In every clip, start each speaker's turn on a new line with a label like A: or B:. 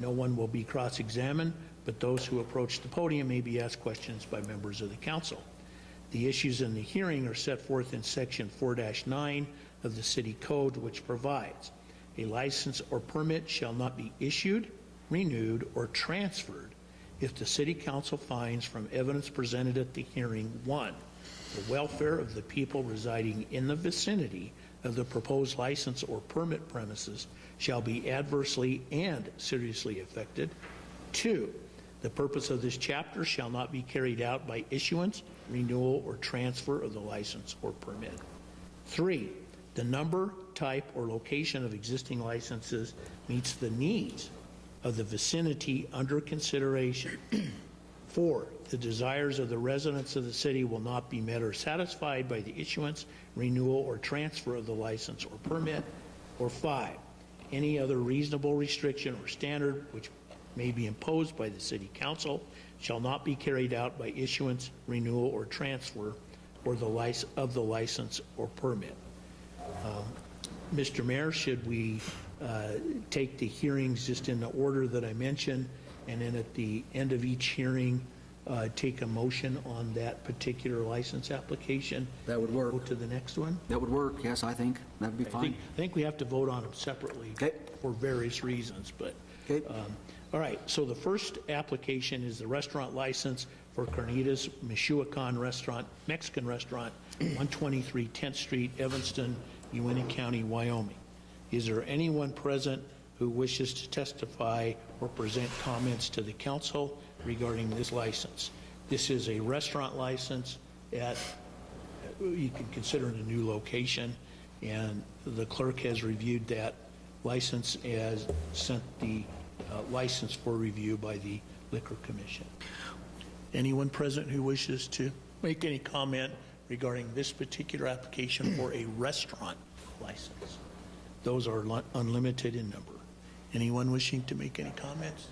A: No one will be cross-examined, but those who approach the podium may be asked questions by members of the council. The issues in the hearing are set forth in Section 4-9 of the City Code, which provides, "A license or permit shall not be issued, renewed, or transferred if the city council finds from evidence presented at the hearing, one, the welfare of the people residing in the vicinity of the proposed license or permit premises shall be adversely and seriously affected. Two, the purpose of this chapter shall not be carried out by issuance, renewal, or transfer of the license or permit. Three, the number, type, or location of existing licenses meets the needs of the vicinity under consideration. Four, the desires of the residents of the city will not be met or satisfied by the issuance, renewal, or transfer of the license or permit. Or five, any other reasonable restriction or standard which may be imposed by the city council shall not be carried out by issuance, renewal, or transfer or the lic, of the license or permit. Mr. Mayor, should we uh, take the hearings just in the order that I mentioned, and then at the end of each hearing, uh, take a motion on that particular license application?
B: That would work.
A: Go to the next one?
B: That would work, yes, I think. That'd be
A: I
B: fine.
A: think, I think we have to vote on them separately
B: Okay.
A: for various reasons, but,
B: Okay.
A: um, all right, so the first application is the restaurant license for Carnitas Michoacan Restaurant, Mexican Restaurant, 123 10th Street, Evanston, Uena County, Wyoming. Is there anyone present who wishes to testify or present comments to the council regarding this license? This is a restaurant license at you can consider it a new location, and the clerk has reviewed that license as sent the uh, license for review by the Liquor Commission. Anyone present who wishes to make any comment regarding this particular application for a restaurant license? Those are lu- unlimited in number. Anyone wishing to make any comments?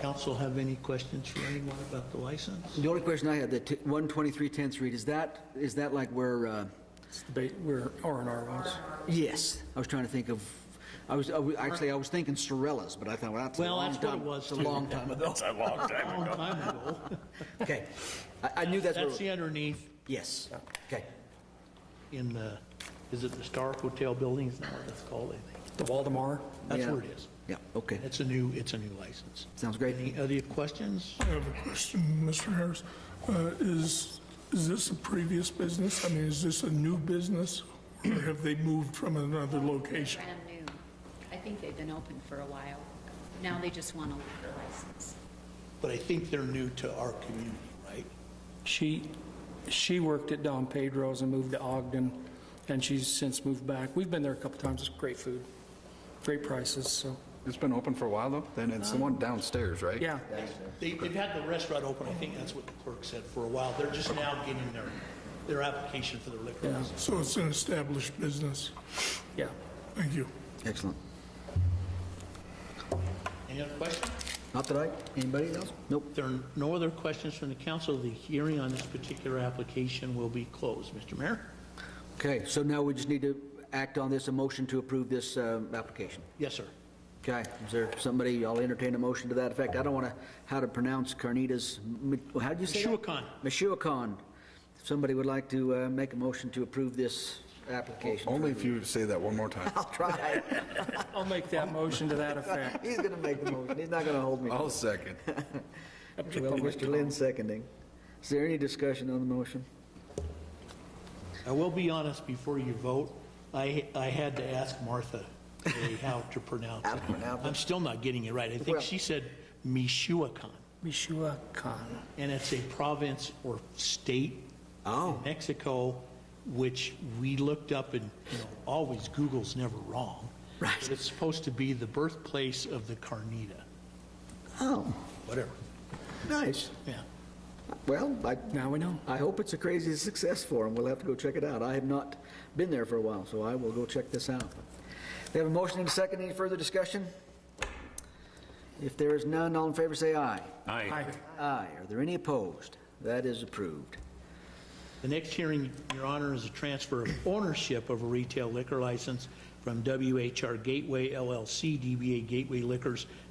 A: Council have any questions for anyone about the license?
B: The only question I had, that 123 10th Street, is that, is that like where, uh,
C: It's the ba- We're R and R ones.
B: yes, I was trying to think of, I was, I was- actually, I was thinking Sorellas, but I thought, well, that's a
A: Well,
B: long
A: that's what
B: time-
A: it was,
B: It's a
A: too.
B: long time ago.
D: That's a long time
A: Long time ago.
B: Okay. I, I knew that's
A: That's
B: where, it was.
A: the underneath.
B: yes, okay.
A: in the, is it the Star Hotel building, is that what it's called, I think?
C: The Waldemar.
A: That's
B: Yeah.
A: where it is.
B: Yeah, okay,
A: It's a new, it's a new license.
B: sounds great.
A: Any other questions?
E: I have a question, Mr. Harris. Uh, Is, is this a previous business? I mean, is this a new business, or have they moved from another location?
F: Brand new. I think they've been open for a while. Now they just want a liquor license.
A: But I think they're new to our community, right?
C: She, she worked at Don Pedro's and moved to Ogden, and she's since moved back. We've been there a couple times. It's great food, great prices, so,
G: It's been open for a while, though? Then it's the one downstairs, right?
C: yeah.
A: They, they've had the restaurant open, I think that's what the clerk said, for a while. They're just now getting their, their application for the liquor
C: Yeah.
A: license.
E: So it's an established business.
C: Yeah.
E: Thank you.
B: Excellent.
A: Any other questions?
B: Not that I, anybody else? Nope.
A: If there are no other questions from the council, the hearing on this particular application will be closed. Mr. Mayor?
B: Okay, so now we just need to act on this, a motion to approve this uh, application.
A: Yes, sir.
B: Okay, is there somebody, I'll entertain a motion to that effect. I don't want to, how to pronounce Carnitas, Mi- how'd you say that?
A: Michoacan.
B: Michoacan. If Somebody would like to uh, make a motion to approve this application.
G: Only if you say that one more time.
B: I'll try.
C: I'll make that motion to that effect.
B: He's going to make the motion. He's not going to hold me.
G: I'll second.
C: Up to
B: Well,
C: you,
B: Mr.
C: Tom.
B: Lynn seconding. Is there any discussion on the motion?
A: I will be honest, before you vote, I, I had to ask Martha today how to pronounce
B: How to
A: it.
B: pronounce it.
A: I'm still not getting it right. I think
B: Well-
A: she said Michoacan,
C: Mishua Khan.
A: and it's a province or state in
B: Oh.
A: Mexico, which we looked up and, you know, always Google's never wrong.
B: Right.
A: But It's supposed to be the birthplace of the carnita,
B: Oh,
A: whatever,
B: nice.
A: yeah.
B: Well, I,
C: Now we know.
B: I hope it's a crazy success for them. We'll have to go check it out. I have not been there for a while, so I will go check this out. We have a motion and a second. Any further discussion? If there is none, all in favor say aye.
C: Hi.
B: Aye. Are there any opposed? That is approved.
A: The next hearing, Your Honor, is a transfer of ownership of a retail liquor license from WHR Gateway LLC, DBA Gateway Liquors,